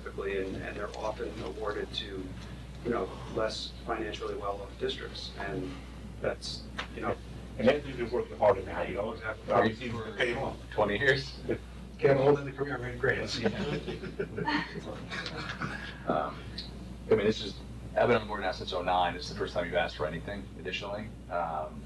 typically, and, and they're often awarded to, you know, less financially well-off districts, and that's, you know, And they've been working hard on that, you know, Exactly. obviously, we're paying off. 20 years. Getting old in the career, right, great. Um, I mean, this is, I've been on the board now since '09. It's the first time you've asked for anything additionally. Um,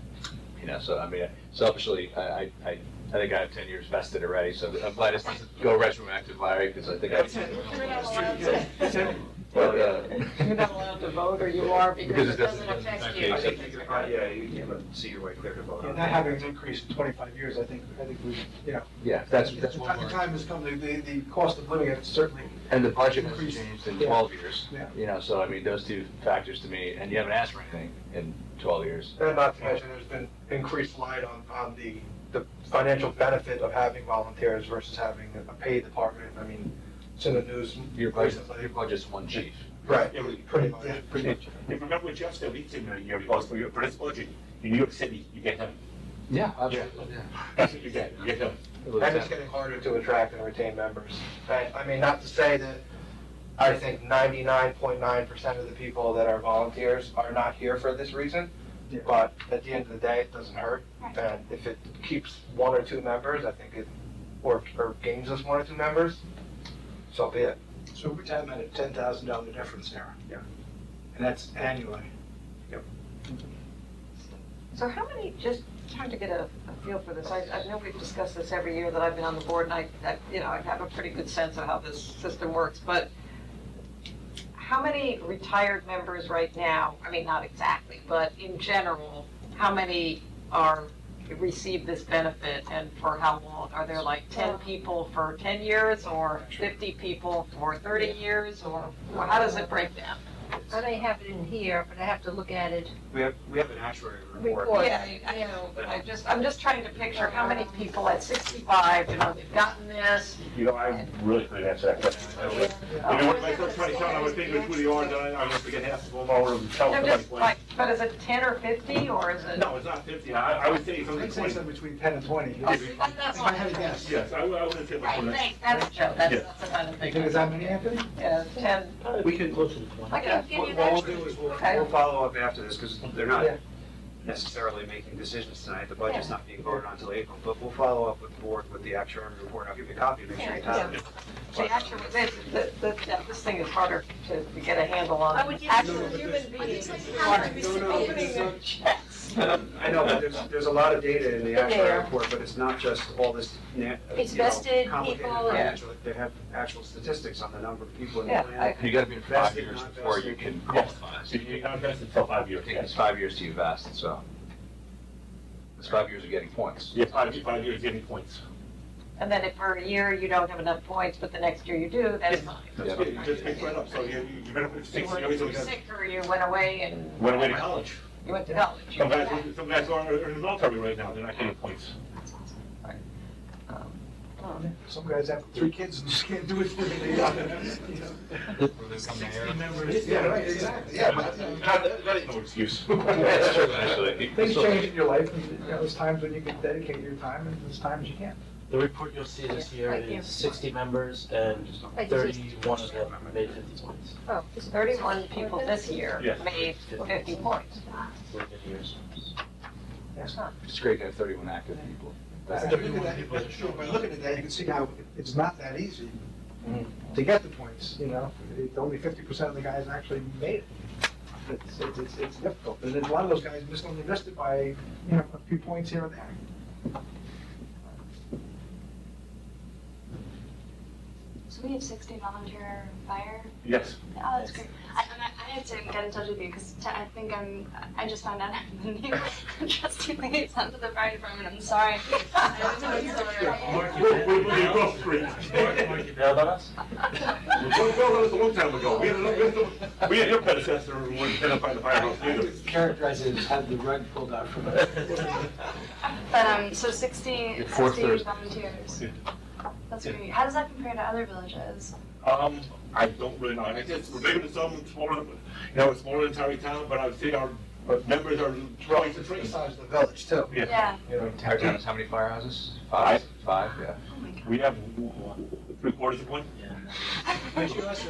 You know, so I mean, selfishly, I, I, I I think I have 10 years vested already, so I'm glad this doesn't go retroactive, Larry, because I think I. You're not allowed to, But, uh, you're not allowed to vote, or you are, because it doesn't affect you. I think you could probably, yeah, you can see your way clear to vote And on not that. having an increase in twenty-five years, I think, I think we, you know. Yeah, that's, that's The one time- the more. time has come, the, the, the cost of living has certainly, And the budget has changed in Yeah. 12 years. Yeah. You know, so I mean, those two factors to me, and you haven't asked for anything in 12 years. Uh, and not to mention, there's been increased light on, on the, the financial benefit of having volunteers versus having a paid department. I mean, it's in the news. Your budget, your budget's one chief. Right, Yeah, we- pretty much. yeah, pretty much. If you remember what Jeff said, we did a year ago, for your first budget, in New York City, you get them. Yeah, absolutely, That's what you get, you get them. And it's getting harder to attract and retain members. And, I mean, not to say that I think ninety-nine point nine percent of the people that are volunteers are not here for this reason, but at the end of the day, it doesn't hurt. And if it keeps one or two members, I think it, or, or gains us one or two members, so be it. So we're talking about a ten thousand dollar difference there. Yeah. And that's annually. So how many, just trying to get a, a feel for this, I, I know we've discussed this every year that I've been on the board, and I, I, you know, I have a pretty good sense of how this system works, but how many retired members right now, I mean, not exactly, but in general, how many are, receive this benefit, and for how long? Are there like ten people for ten years, or fifty people for thirty years, or or how does it break down? I may have it in here, but I have to look at it. We have, we have an actuary report. Report. Or- Yeah, I I know, but I just, I'm just trying to picture how many people at 65, you know, they've gotten this. You know, I really couldn't answer that question. I would- You know, what, myself, trying to count, I would think of who they are, then I, I'm gonna forget half of them, or tell I'm somebody. just what- like, but is it 10 or 50, or is it? No, it's not fifty, I, I would say So something let's say twenty. something between ten and twenty. Oh, see, that- that's If I had a one. guess. Yes, I would, I wouldn't say like Right, twenty. thanks, that's Joe, Yeah. that's, that's the kind of You think it's thing. that many, Anthony? Yeah, 10, We can close to the point. I can give What you what we'll that. do is we'll, Okay. we'll follow up after this, because they're not Yeah. necessarily making decisions tonight. The budget's not being voted on until April, but we'll follow up with the board with the actuary report. I'll give you a copy, make sure you have it. See, actually, this, this- this, yeah, this thing is harder to to get a handle on. I would give Actual you- human beings. like is how harder. to No, no, receive it's it. not- Checks. I know, but there's, there's a lot of data in the There. actual report, but it's not just all this, na- It's you know, vested complicated people and- financial- They have actual statistics on the number of people in the Yeah, plan. You gotta be in five years before you can qualify. So you can't invest until five years, It takes yes. five years to invest, so. It's five years of getting points. Yeah, five, five years, getting points. And then if for a year you don't have enough points, but the next year you do, that's fine. Yeah. Yeah, you Just pick right up, so you, you better put You six, were you always you look were at- sick or you went away and went away to college. you went to college. Some guys, some guys are are in the military right now, they're not getting points. Oh, Some guys have three kids and just can't do it for me. That's Members, yeah, right, exactly, yeah. but, you know, That that is no excuse. true, actually. Things change in your life, and you know, there's times when you can dedicate your time, and there's times you can't. The report you'll see this year Right there. is sixty members and Right, this is- thirty-one of them made fifty points Oh, this is 31 people this year Yes. made 50 points. within years. It's great to have thirty-one active people. But That- looking at- but sure, By looking at that, you can see how it's not that easy to get the points, you know? It- Only fifty percent of the guys actually made it. It's, it's- it's, it's difficult, and then a lot of those guys missed, only missed it by, you know, a few points here and there. So we have 60 volunteer fire. Yes. Oh, that's great. I, and I, I had to get in touch with you because t- I think I'm. I just found out I'm the new trustee liaison to the fire department. I'm sorry. I'm totally sorry. We're, we're moving across the street. You know about us? We told Bill this a long time ago, we had, we had- we had your predecessor, who was identified the firehouse leader. Characterize it as had the rug pulled out from But um, so 60, Your fourth 60 Thursday. volunteers. Yeah. That's great. How does that compare to other villages? Um, I don't really know, I guess we're bigger than some, smaller, than- you know, it's smaller than Tarrytown, but I would say our our members are twice the The trace. size of the village, too. Yeah. You know, Tarrytown has how many firehouses? Five, five, yeah. Oh my god. We have three quarters of one? Yeah. But you also